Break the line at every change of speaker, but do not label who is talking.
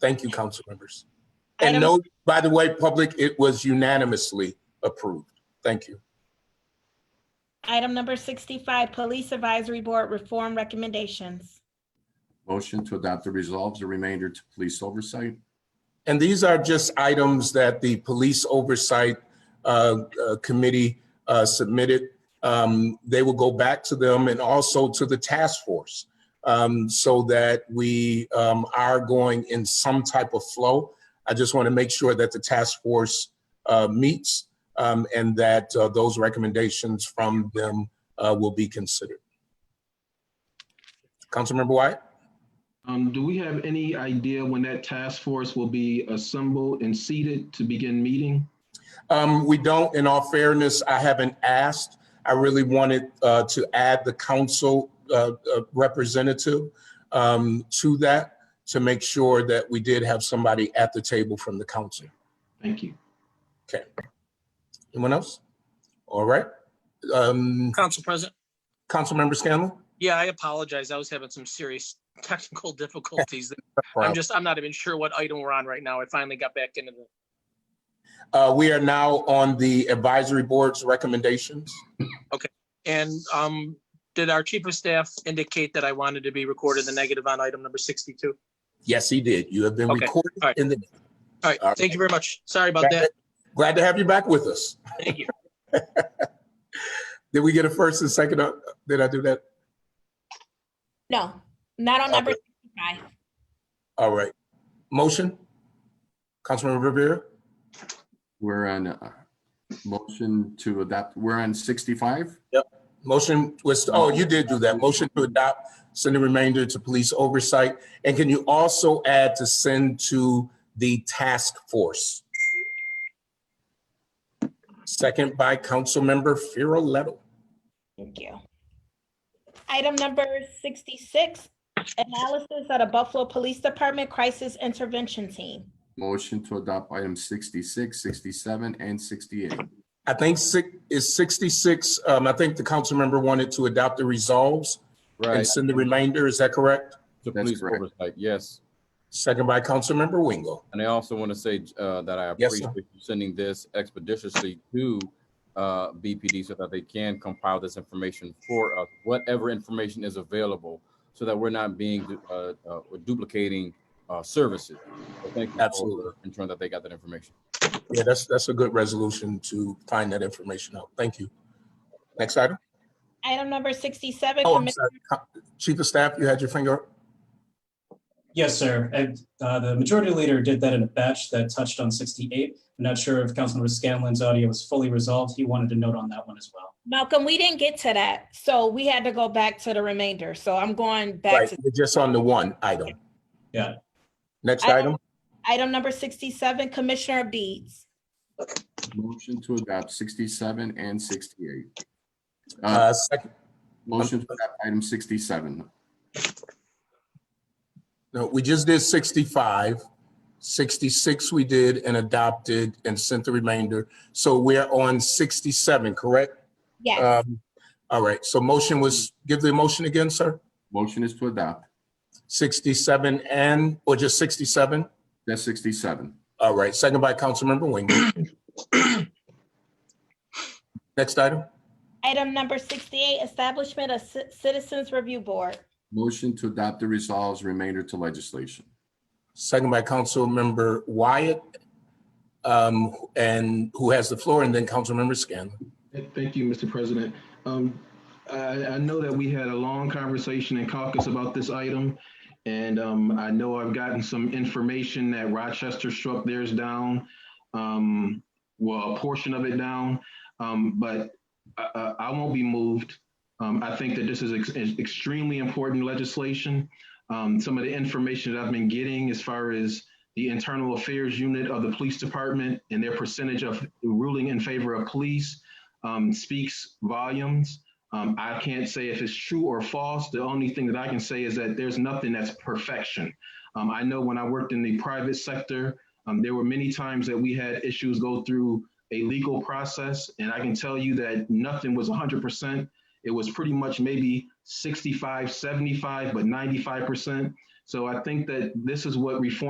Thank you, council members.
Item-
And no, by the way, public, it was unanimously approved. Thank you.
Item number 65, Police Advisory Board Reform Recommendations.
Motion to adopt the resolves, the remainder to police oversight.
And these are just items that the Police Oversight uh, uh, Committee uh, submitted. Um, They will go back to them and also to the task force um, so that we um, are going in some type of flow. I just want to make sure that the task force uh, meets um, and that uh, those recommendations from them uh, will be considered. Councilmember Wyatt?
Um, do we have any idea when that task force will be assembled and seated to begin meeting?
Um, we don't, in all fairness, I haven't asked. I really wanted, uh, to add the council, uh, uh, representative, um, to that to make sure that we did have somebody at the table from the council.
Thank you.
Anyone else? All right. Um,
Council President,
Councilmember Scanlon?
yeah, I apologize. I was having some serious technical difficulties. I'm just, I'm not even sure what item we're on right now. I finally got back into the,
Uh, we are now on the advisory board's recommendations.
and um, did our chief of staff indicate that I wanted to be recorded the negative on item number sixty-two?
Yes, he did. You have been
Okay,
recorded
all right.
in the,
All right,
All right.
thank you very much. Sorry about
glad
that.
glad to have you back with us.
Thank you.
Did we get a first and second? uh, Did I do that?
No, not on number 65.
All right. Motion? Councilmember Rivera?
We're on uh, motion to adopt, we're on 65?
Motion was, oh, you did do that. Motion to adopt, send the remainder to police oversight. And can you also add to send to the task force? Second by Councilmember Farrelletto.
Thank you. Item number 66, Analysis of the Buffalo Police Department Crisis Intervention Team.
Motion to adopt items 66, 67, and 68.
I think six, is sixty-six, um, I think the council member wanted to adopt the resolves and
Right,
send the remainder, is that correct?
to
That's
police
correct.
oversight, yes.
Second by Councilmember Wingo.
And I also want to say uh, that I
Yes, sir.
appreciate you sending this expeditiously to uh, BPD so that they can compile this information for us, whatever information is available, so that we're not being du- uh, uh, or duplicating uh, services. So Thank you
Absolutely.
for ensuring that they got that information.
Yeah, that's, that's a good resolution to find that information out. Thank you. Next item.
Item number 67,
Oh, I'm
Commis-
sorry. Co- Chief of Staff, you had your finger up?
Yes, sir. And uh, the majority leader did that in a batch that touched on 68. I'm not sure if Councilmember Scanlon's audio was fully resolved. He wanted to note on that one as well.
Malcolm, we didn't get to that, so we had to go back to the remainder. So I'm going back
Right,
to
we're just on the one item.
Yeah.
Next
I-
item,
item number 67, Commissioner Beeds.
Motion to adopt 67 and 68. Uh,
uh, second,
Motion to adopt item 67.
no, we just did sixty-five. Sixty-six we did and adopted and sent the remainder. So we're on sixty-seven, correct?
Yes,
Um, all right, so motion was, give the motion again, sir?
Motion is to adopt.
Sixty-seven and, or just sixty-seven?
That's 67.
All right, second by Councilmember Wing. Next item,
item number 68, Establishment of Ci- Citizens Review Board.
Motion to adopt the resolves, remainder to legislation.
second by Councilmember Wyatt. Um, and who has the floor, and then Councilmember Scanlon.
Thank you, Mr. President. Um, I, I know that we had a long conversation in caucus about this item. And, um, I know I've gotten some information that Rochester struck theirs down. Um, well, a portion of it down, um, but I, I, I won't be moved. Um, I think that this is ex- is extremely important legislation. Um, some of the information that I've been getting as far as the internal affairs unit of the police department and their percentage of ruling in favor of police um, speaks volumes. Um, I can't say if it's true or false. The only thing that I can say is that there's nothing that's perfection. Um, I know when I worked in the private sector, um, there were many times that we had issues go through a legal process, and I can tell you that nothing was 100%. It was pretty much maybe 65, 75, but 95%. So I think that this is what reform